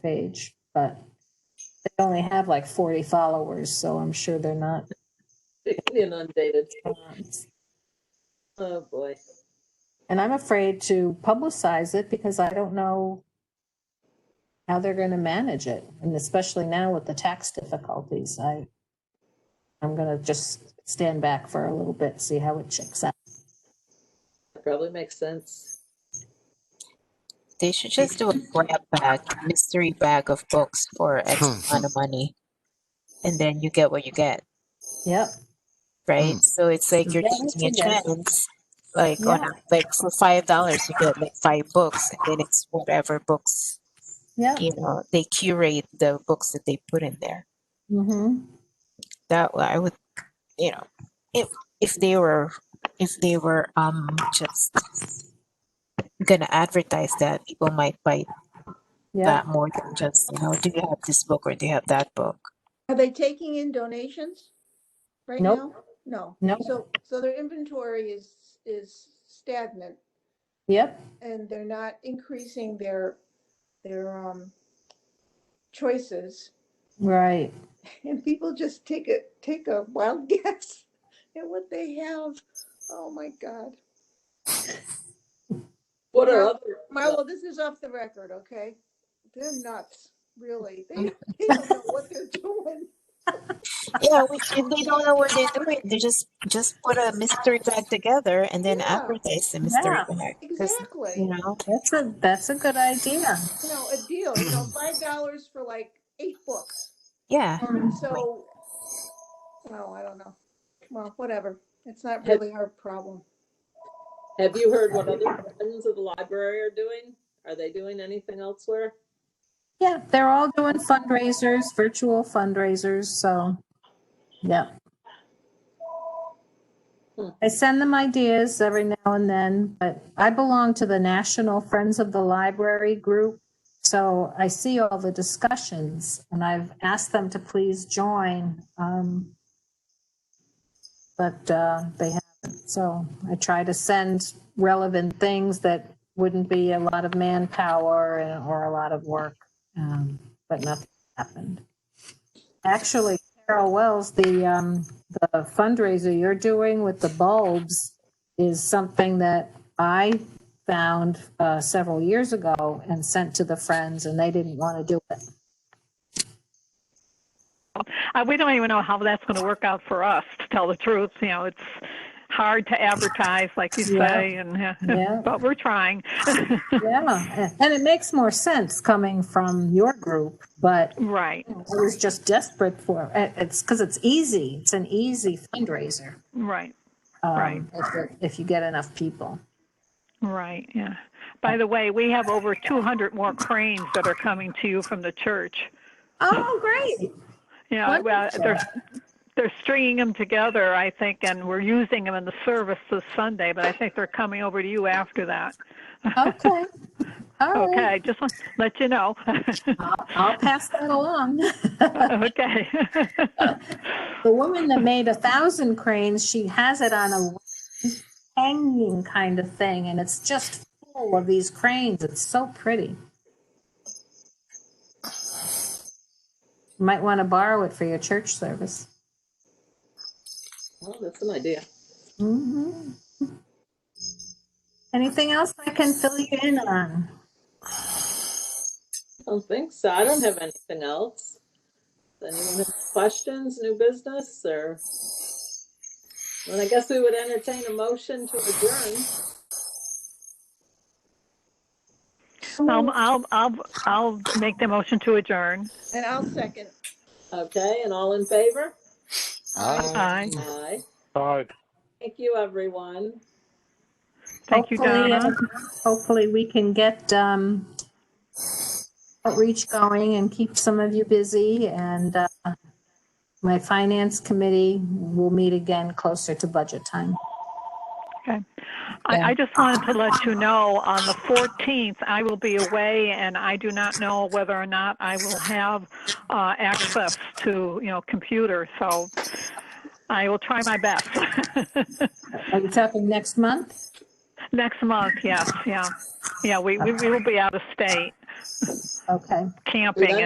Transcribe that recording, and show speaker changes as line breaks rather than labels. page, but they only have like 40 followers, so I'm sure they're not.
inundated.
um,
Oh, boy.
And I'm afraid to publicize it because I don't know how they're going to manage it. And especially now with the tax difficulties, I, I'm going to just stand back for a little bit, see how it checks out.
That probably makes sense.
They should just do a grab bag, mystery bag of books for X amount of money. And then you get what you get,
Yep.
right? So it's like you're
Yeah,
taking a
that's a good-
chance. Like on a, like for five dollars you get like five books and then it's whatever books,
Yep.
you know, they curate the books that they put in there.
Mm-hmm.
That way I would you know, if if they were if they were um just gonna advertise that people might buy
Yeah.
that more than just, you know, do you have this book or do you have that book?
Are they taking in donations right
Nope.
now? No.
Nope.
So, so their inventory is, is stagnant
Yep.
and they're not increasing their, their, um, choices.
Right.
And people just take a, take a wild guess at what they have. Oh, my God.
What are
Yeah.
other,
Marlo, this is off the record, okay? They're nuts, really. They, they don't know what they're doing.
Yeah, we, if they don't know what they're doing, they just just put a mystery bag together and then
Yeah.
advertise the mystery
Yeah.
bag. 'Cause,
Exactly.
you know,
That's a, that's a good idea.
you know, a deal, you know, five dollars for like eight books.
yeah,
And so, oh, I don't know. Well, whatever. It's not really our problem.
have you heard what other friends of the library are doing? Are they doing anything elsewhere?
Yeah, they're all doing fundraisers, virtual fundraisers, so, yeah.
Hmm.
I send them ideas every now and then, but I belong to the National Friends of the Library group. So I see all the discussions and I've asked them to please join. um, But uh, they haven't, so I try to send relevant things that wouldn't be a lot of manpower and- or a lot of work, um, but nothing happened. Actually, Carol Wells, the, um, the fundraiser you're doing with the bulbs is something that I found uh, several years ago and sent to the friends, and they didn't want to do it.
Uh, we don't even know how that's going to work out for us, to tell the truth. You know, it's hard to advertise, like you
Yeah.
say, and uh,
Yeah.
but we're trying.
Yeah, and it makes more sense coming from your group, but
right,
I was just desperate for it. It's because it's easy. It's an easy fundraiser.
right,
um,
Right.
if it- If you get enough people.
right. Yeah. By the way, we have over 200 more cranes that are coming to you from the church.
Oh, great.
Yeah, well,
Wonderful.
they're they're stringing them together, I think, and we're using them in the service this Sunday. But I think they're coming over to you after that.
Okay. All
Okay,
right.
I just want to let you know.
I'll- I'll pass that along.
okay.
The woman that made a thousand cranes, she has it on a hanging kind of thing, and it's just full of these cranes. It's so pretty. You might want to borrow it for your church service.
Well, that's an idea.
Mhm. Anything else I can fill you in on?
I don't think so. I don't have anything else. Does anyone have questions, new business, or? Well, I guess we would entertain a motion to adjourn.
I'll, I'll, I'll, I'll make the motion to adjourn.
And I'll second.
Okay, and all in favor?
Aye.
Aye.
Aye.
Thank you, everyone.
Thank you,
Hopefully,
Donna.
uh, Hopefully, we can get um, outreach going and keep some of you busy. And uh, my finance committee will meet again closer to budget time.
I, I just wanted to let you know, on the 14th, I will be away and I do not know whether or not I will have, uh, access to, you know, computer, so I will try my best.
Are you talking next month?
Next month, yes, yeah. Yeah, we, we we will be out of state.
Okay.
camping